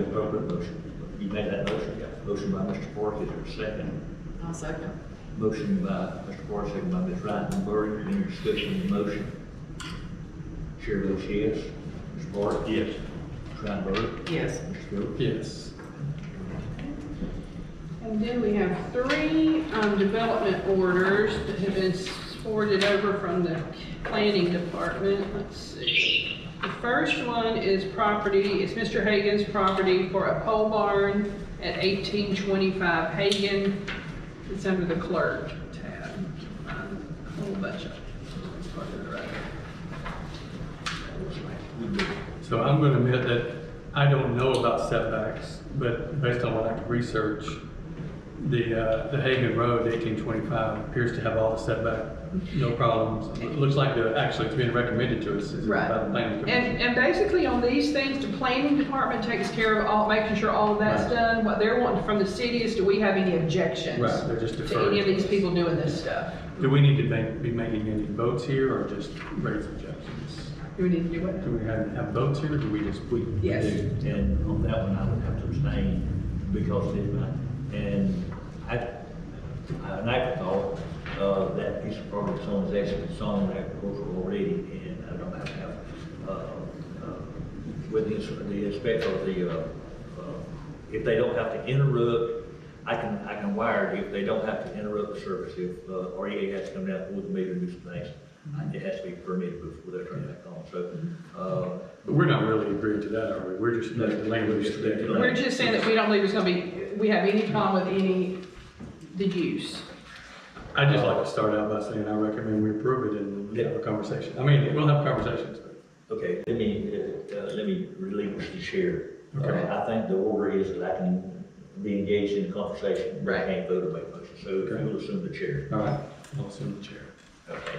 appropriate motion. You made that motion, yeah. Motion by Mr. Park, is there a second? I'll second. Motion by Mr. Park, second by Ms. Reitenberg, any discussion of the motion? Chair votes yes. Mr. Park? Yes. Ms. Reitenberg? Yes. Mr. Phillips? Yes. And then we have three, um, development orders that have been forwarded over from the planning department. Let's see. The first one is property, it's Mr. Hagan's property for a pole barn at eighteen twenty-five Hagan. It's under the clerk tab. Um, A whole bunch of. part of it right there. So I'm going to admit that I don't know about setbacks, but based on what I could research, the, uh, the Hagan Road, eighteen twenty-five, appears to have all the setback, no problems. It looks like the, actually, it's being recommended to us, is by the Right. planning commission. And, and basically on these things, the planning department takes care of all, making sure all of that's Right. done. What they're wanting from the city is, do we have any objections? Right, they're just To any of deferred. these people doing this stuff? Do we need to make, be making any votes here, or just raise objections? Do we need to do what? Do we have, have votes here, or do we just, we? Yes. And on that one, I would have to abstain because it's my, and I, I, and I thought, uh, that piece of property someone's asking, it's on agricultural already, and I don't have to have, uh, uh, with the, ins- the inspector, of the, uh, uh, if they don't have to interrupt, I can, I can wire it, if they don't have to interrupt the service, if, uh, REA has to come down with the meter and do some things, it has to be permitted before they turn it back on, so, uh, But we're not really agreeing to that, are we? We're just, the language today. We're just saying that we don't believe it's gonna be, we have any problem with any, the use. I'd just like to start out by saying I recommend we approve it and we have a conversation. I mean, we'll have conversations. Okay, let me, uh, uh, let me relinquish the chair. Uh, Okay. I think the order is that I can be engaged in conversation. but I Right. Can't vote or make motion, so Okay. you'll assume the chair. All right, I'll assume the chair. Okay.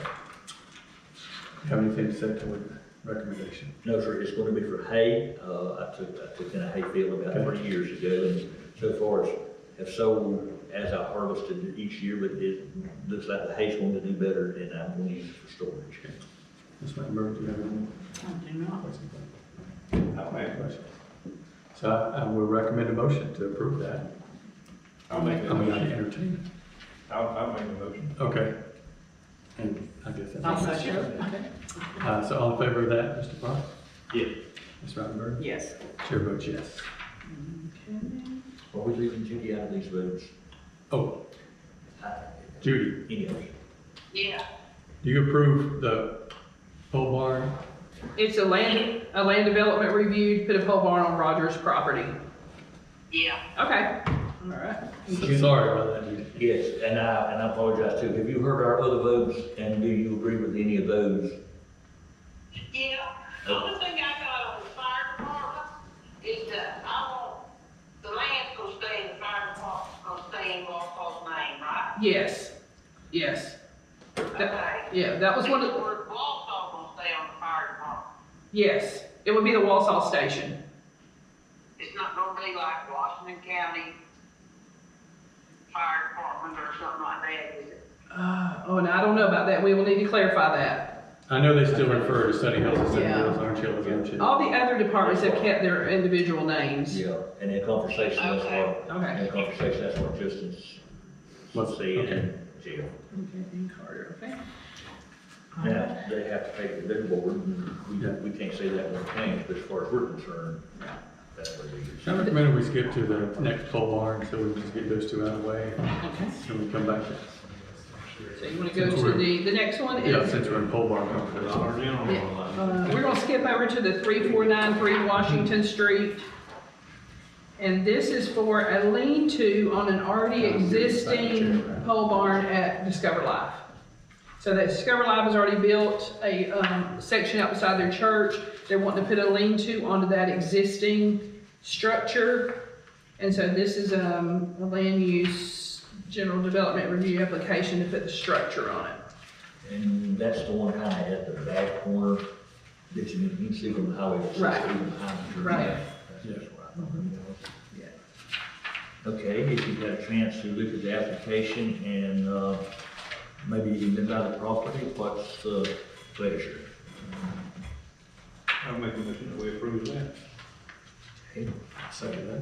You Have anything to say to the recommendation? No, sir, it's gonna be for hay, uh, I took, I took in a hay field about Okay. three years ago, and so far it's, have sold as I harvested each year, but it looks like the hay's going to do better, and I'm gonna use it for storage. Ms. Rattenberg, do you have any more I do not. questions? I don't have questions. So I I will recommend a motion to approve that. I'll make I the mean, I motion. entertain. I'll, I'll make the motion. it. Okay. And I guess that's. I'll second. Uh, so all in favor of that, Mr. Park? Yeah. Ms. Rattenberg? Yes. Chair votes yes. Are we leaving Judy out of these votes? Oh, I- Judy. Any others? Yeah, Do you approve the pole barn? It's a land, a land development review, put a pole barn on Rogers' property. yeah. Okay. All right. Sorry about that, Judy. Yes, and I, and I apologize too. Have you heard our other votes and do you agree with any of those? Yeah, the only thing I got on the fire department is that I want, the land's gonna stay in the fire department's gonna stay in Walpole's name, right? Yes, yes. Okay. Yeah, that was one of, the. Walpole gonna stay on the fire department. yes, it would be the Walsall Station. It's not gonna be like Washington County Fire Department or something like that, is it? Uh, oh, and I don't know about that, we will need to clarify that. I know they still refer to Sunny Hills as Sunny Yeah. Hills, aren't you, aren't you? All the other departments have kept their individual names. Yeah. And in conversation, that's what, Okay. in conversation, that's what Justin's Let's- saying okay. in jail. Carter, okay. Now, they have to pay for their board and Yeah. we, we can't say that won't change, but as far as we're concerned, Yeah. that's what it is. I recommend we skip to the next pole barn, so we can just get those two out of the way, Okay. and we come back. to- So you wanna go to the, the next one Yeah, is, since we're in pole barn conversation. uh, we're gonna skip over to the three four nine three Washington Street. And this is for a lean-to on an already existing pole barn at Discover Life. So that Discover Life has already built a, um, section out beside their church. They're wanting to put a lean-to onto that existing structure. And so this is, um, a land use general development review application to put the structure on it. And that's the one kind of at the back corner that you can you can see from the highway. it's Right. even behind the church. Right. That's- that's what I thought it was. Okay, if you've got a chance to look at the application and, uh, maybe even buy the property, what's the pleasure? I'll make the motion that we approve that. Okay. Second that.